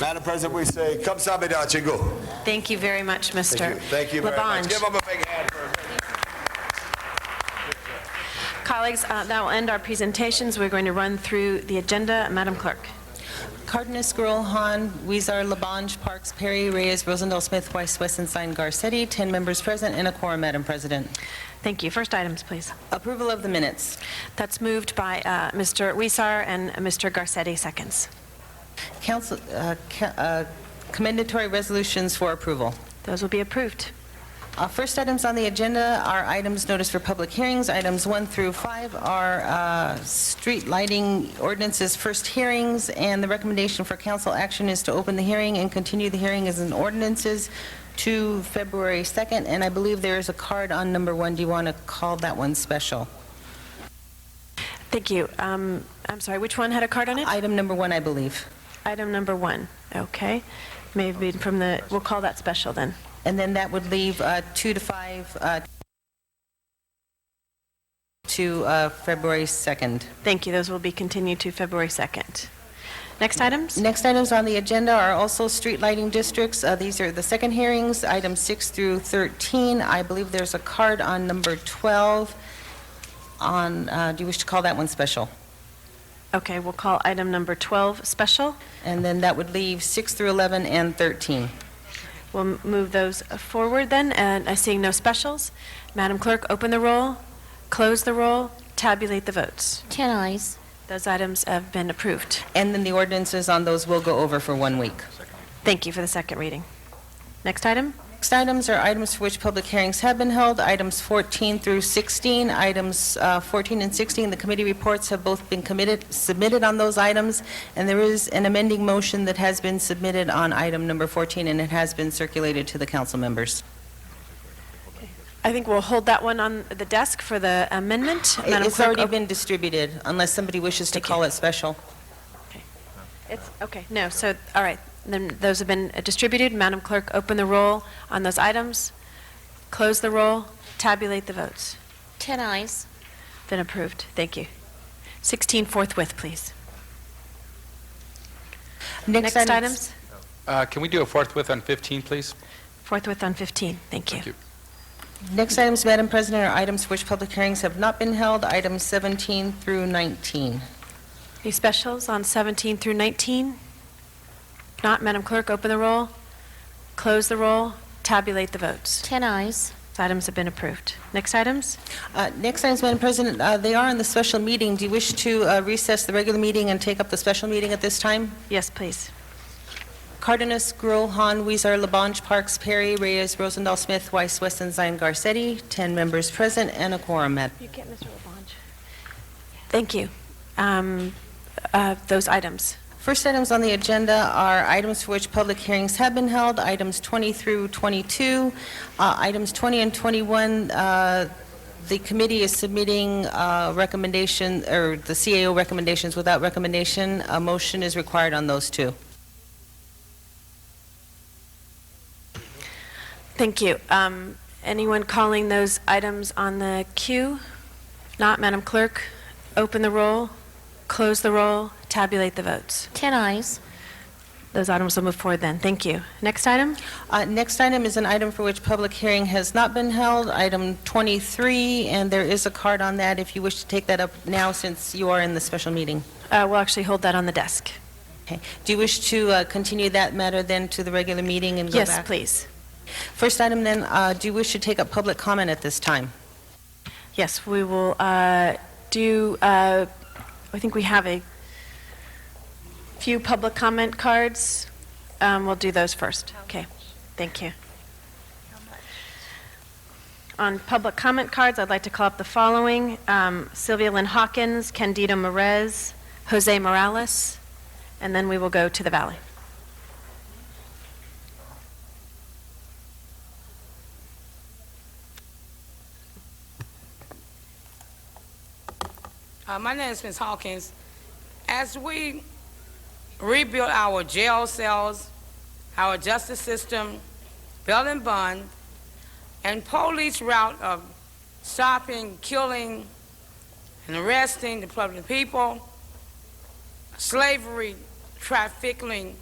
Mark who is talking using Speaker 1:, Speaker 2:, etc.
Speaker 1: Madam President, we say, "Come sabida, chingu."
Speaker 2: Thank you very much, Mr.
Speaker 1: Thank you very much.
Speaker 2: Labange.
Speaker 1: Give them a big hand. for-
Speaker 2: Colleagues, uh, that will end our presentations. We're going to run through the agenda. Madam Clerk.
Speaker 3: Cardenas, Gruel, Han, Weezer, Labange, Parks, Perry, Reyes, Rosendahl, Smith, Weiss, Westenstein, Garcetti, 10 members present and a quorum, Madam President.
Speaker 2: Thank you. First items, please.
Speaker 3: Approval of the minutes.
Speaker 2: That's moved by uh, Mr. Weezer and Mr. Garcetti, seconds.
Speaker 3: Council, uh, ca- uh, commendatory resolutions for approval.
Speaker 2: Those will be approved.
Speaker 3: Uh, First items on the agenda are items noticed for public hearings. Items one through five are uh, street lighting ordinances, first hearings, and the recommendation for council action is to open the hearing and continue the hearing as an ordinances to February 2nd, and I believe there is a card on number one. Do you want to call that one special?
Speaker 2: Thank you. Um, I'm sorry, which one had a card on it?
Speaker 3: Item number one, I believe.
Speaker 2: Item number one. Okay. Maybe from the, we'll call that special then.
Speaker 3: And then that would leave uh, two to five uh, to uh, February 2nd.
Speaker 2: Thank you. Those will be continued to February 2nd. Next items?
Speaker 3: Next items on the agenda are also street lighting districts. Uh, These are the second hearings, items 6 through 13. I believe there's a card on number 12 on, uh, do you wish to call that one special?
Speaker 2: Okay, we'll call item number 12 special.
Speaker 3: And then that would leave 6 through 11 and 13.
Speaker 2: We'll m- move those forward then, and uh, seeing no specials, Madam Clerk, open the roll, close the roll, tabulate the votes.
Speaker 4: 10 eyes.
Speaker 2: Those items have been approved.
Speaker 3: And then the ordinances on those will go over for one week.
Speaker 2: Thank you for the second reading. Next item?
Speaker 3: Next items are items for which public hearings have been held, items 14 through 16. Items uh, 14 and 16, the committee reports have both been committed, submitted on those items, and there is an amending motion that has been submitted on item number 14, and it has been circulated to the council members.
Speaker 2: I think we'll hold that one on the desk for the amendment. Madam
Speaker 3: It's
Speaker 2: Clerk,
Speaker 3: already
Speaker 2: op-
Speaker 3: been distributed, unless somebody wishes to
Speaker 2: Thank you.
Speaker 3: call it special.
Speaker 2: It's, okay, no, so, all right, then those have been uh, distributed. Madam Clerk, open the roll on those items, close the roll, tabulate the votes.
Speaker 4: 10 eyes.
Speaker 2: Been approved. Thank you. 16 forthwith, please. Next items?
Speaker 5: Uh, Can we do a forthwith on 15, please?
Speaker 2: Forthwith on 15, thank you.
Speaker 5: Thank you.
Speaker 3: Next items, Madam President, are items for which public hearings have not been held, items 17 through 19.
Speaker 2: Any specials on 17 through 19? If not, Madam Clerk, open the roll, close the roll, tabulate the votes.
Speaker 4: 10 eyes.
Speaker 2: These items have been approved. Next items?
Speaker 3: Uh, Next items, Madam President, uh, they are in the special meeting. Do you wish to uh, recess the regular meeting and take up the special meeting at this time?
Speaker 2: Yes, please.
Speaker 3: Cardenas, Gruel, Han, Weezer, Labange, Parks, Perry, Reyes, Rosendahl, Smith, Weiss, Westenstein, Garcetti, 10 members present and a quorum, Madam.
Speaker 2: You get Mr. Labange. Thank you. Um, uh, Those items.
Speaker 3: First items on the agenda are items for which public hearings have been held, items 20 through 22. Uh, Items 20 and 21, uh, the committee is submitting uh, recommendation, or the CAO recommendations without recommendation. A motion is required on those two.
Speaker 2: Thank you. Um, Anyone calling those items on the queue? Not, Madam Clerk, open the roll, close the roll, tabulate the votes.
Speaker 4: 10 eyes.
Speaker 2: Those items will move forward then. Thank you. Next item?
Speaker 3: Uh, Next item is an item for which public hearing has not been held, item 23, and there is a card on that if you wish to take that up now since you are in the special meeting.
Speaker 2: Uh, We'll actually hold that on the desk.
Speaker 3: Okay. Do you wish to uh, continue that matter then to the regular meeting and go back?
Speaker 2: Yes, please.
Speaker 3: First item then, uh, do you wish to take up public comment at this time?
Speaker 2: Yes, we will uh, do, uh, I think we have a few public comment cards. Um, We'll do those first. Okay, thank you. On public comment cards, I'd like to call up the following: um, Sylvia Lynn Hawkins, Candido Merez, Jose Morales, and then we will go to the Valley.
Speaker 6: Uh, my name is Ms. Hawkins. As we rebuild our jail cells, our justice system, bail and bond, and police route of stopping, killing, and arresting the public people, slavery, trafficking,